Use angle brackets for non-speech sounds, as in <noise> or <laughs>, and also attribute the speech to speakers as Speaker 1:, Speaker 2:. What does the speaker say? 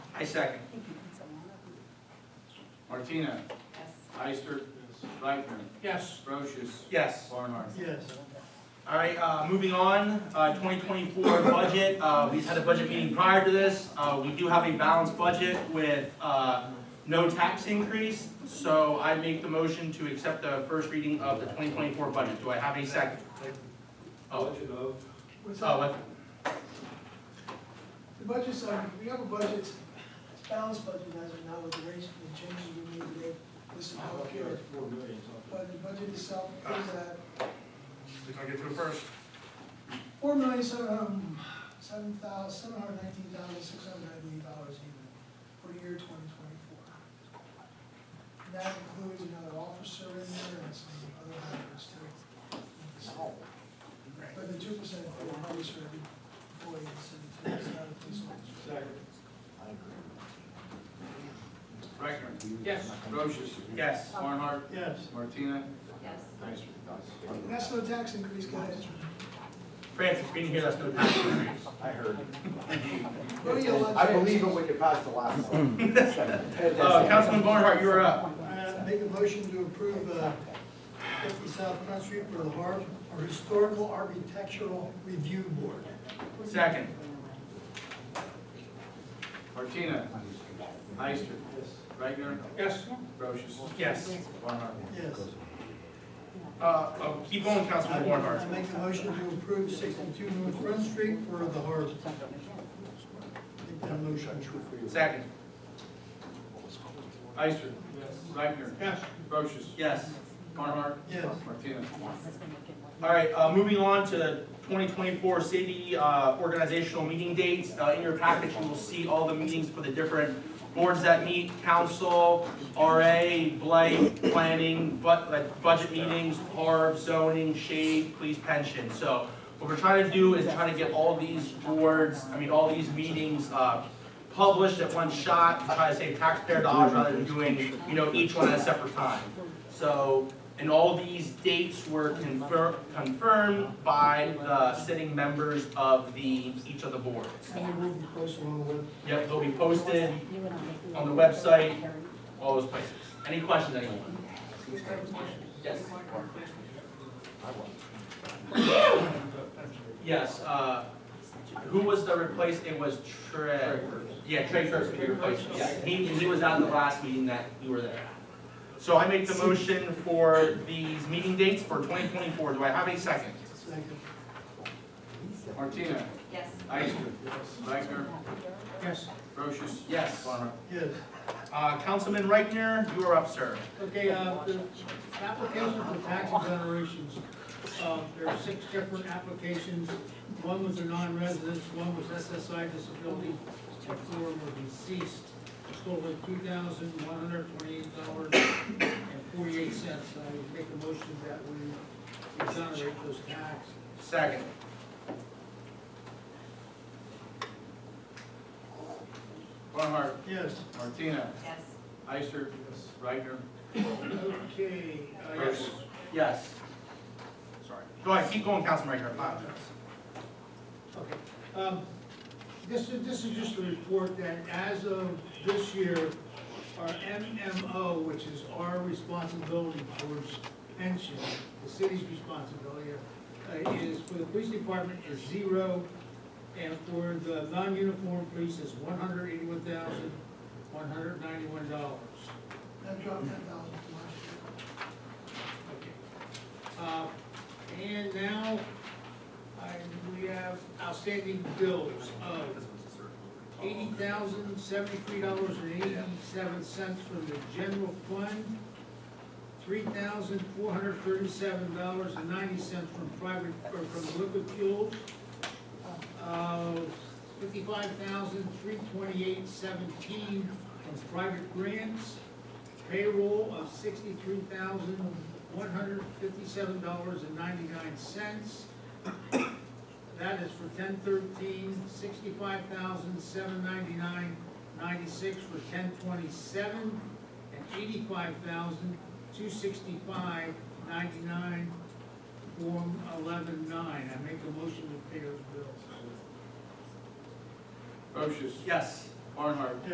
Speaker 1: I second.
Speaker 2: Martina.
Speaker 3: Yes.
Speaker 2: Ister. Reichner.
Speaker 1: Yes.
Speaker 2: Brochus.
Speaker 1: Yes.
Speaker 2: Barnhart.
Speaker 4: Yes.
Speaker 1: All right, uh, moving on, uh, 2024 <coughs> budget, uh, we just had a budget meeting prior to this. Uh, We do have a balanced budget with uh, no tax increase, so I make the motion to accept the first reading of the 2024 budget. Do I have a second? Oh,
Speaker 2: Budget of.
Speaker 4: What's
Speaker 1: oh,
Speaker 4: up?
Speaker 1: what-
Speaker 4: The budget's, um, we have a budget, it's balanced budget as of now with the rates and the changes we made today. This is how it appears.
Speaker 2: Four million.
Speaker 4: But the budget itself is at
Speaker 5: We're gonna get through first.
Speaker 4: four million, seven, um, seven thousand, seven hundred nineteen thousand, six hundred ninety-eight dollars even for the year twenty twenty-four. And that includes another officer in there and some other items too. But the two percent for officer employees and it's not a police officer.
Speaker 2: Second. Reichner. Yes. Brochus.
Speaker 1: Yes.
Speaker 2: Barnhart.
Speaker 4: Yes.
Speaker 2: Martina.
Speaker 3: Yes.
Speaker 2: Ister.
Speaker 4: That's no tax increase, guys.
Speaker 1: Francis, we didn't hear that's no tax increase.
Speaker 6: I heard.
Speaker 4: What do you want?
Speaker 6: I believe it when you pass the last one.
Speaker 1: <laughs> Uh, Councilman Barnhart, you are up.
Speaker 7: I Uh, make a motion to approve uh, 50 South Front Street for the Har- our Historical Architectural Review Board.
Speaker 1: Second.
Speaker 2: Martina. Ister. Reichner.
Speaker 1: Yes.
Speaker 2: Brochus.
Speaker 1: Yes.
Speaker 2: Barnhart.
Speaker 7: Yes.
Speaker 1: Uh, uh, Keep going, Councilman Barnhart.
Speaker 7: I make a motion to approve 62 North Front Street for the Har. Make that motion.
Speaker 1: Second.
Speaker 2: Ister. Yes. Reichner.
Speaker 7: Yes.
Speaker 2: Brochus.
Speaker 1: Yes.
Speaker 2: Barnhart.
Speaker 7: Yes.
Speaker 2: Martina.
Speaker 1: All right, uh, moving on to the 2024 city uh, organizational meeting dates. Uh, In your package, you will see all the meetings for the different boards that meet, council, RA, blight, planning, but, like, budget meetings, harb, zoning, shade, police pension. So what we're trying to do is trying to get all these boards, I mean, all these meetings uh, published at one shot, to try to save taxpayer dollars rather than doing, you know, each one at a separate time. So, and all these dates were confirmed, confirmed by the sitting members of the, each of the boards.
Speaker 7: And then move the question on the web.
Speaker 1: Yep, they'll be posted on the website, all those places. Any questions, anyone? Yes. Yes, uh, who was the replace, it was Trey. Yeah, Trey Kurtz, he replaced, him. yeah, he, he was at the last meeting that you were there. So I make the motion for these meeting dates for twenty twenty-four, do I have a second?
Speaker 7: Second.
Speaker 2: Martina.
Speaker 3: Yes.
Speaker 2: Ister. Reichner.
Speaker 1: Yes.
Speaker 2: Brochus.
Speaker 1: Yes.
Speaker 2: Barnhart.
Speaker 7: Yes.
Speaker 1: Uh, Councilman Reichner, you are up, sir.
Speaker 8: Okay, uh, the application for tax exonerations, uh, there are six different applications. One was a non-resident, one was SSI disability, and four were deceased. Total two thousand one hundred twenty-eight dollars and forty-eight cents. I would make a motion that we exonerate those tax.
Speaker 1: Second.
Speaker 2: Barnhart.
Speaker 7: Yes.
Speaker 2: Martina.
Speaker 3: Yes.
Speaker 2: Ister. Reichner.
Speaker 7: Okay. uh,
Speaker 2: Brochus.
Speaker 1: Yes. Sorry. Go ahead, keep going, Councilman Reichner, I apologize.
Speaker 8: Okay. Um, This is, this is just a report that as of this year, our MMO, which is our responsibility towards pension, the city's responsibility, uh, is for the police department is zero, and for the non-uniform police is one hundred eighty-one thousand, one hundred ninety-one dollars.
Speaker 4: That dropped ten thousand from last
Speaker 8: Okay. Uh,
Speaker 4: year.
Speaker 8: And now, I, we have outstanding bills of eighty thousand, seventy-three dollars and eighty-seven cents from the general fund, three thousand, four hundred thirty-seven dollars and ninety cents from private, or from liquid fuels, uh, fifty-five thousand, three twenty-eight, seventeen from private grants, payroll of sixty-three thousand, one hundred fifty-seven dollars and ninety-nine cents. That is for ten thirteen, sixty-five thousand, seven ninety-nine, ninety-six for ten twenty-seven, and eighty-five thousand, two sixty-five, ninety-nine, form eleven-nine. I make a motion to pay those bills.
Speaker 2: Brochus.
Speaker 1: Yes.
Speaker 2: Barnhart.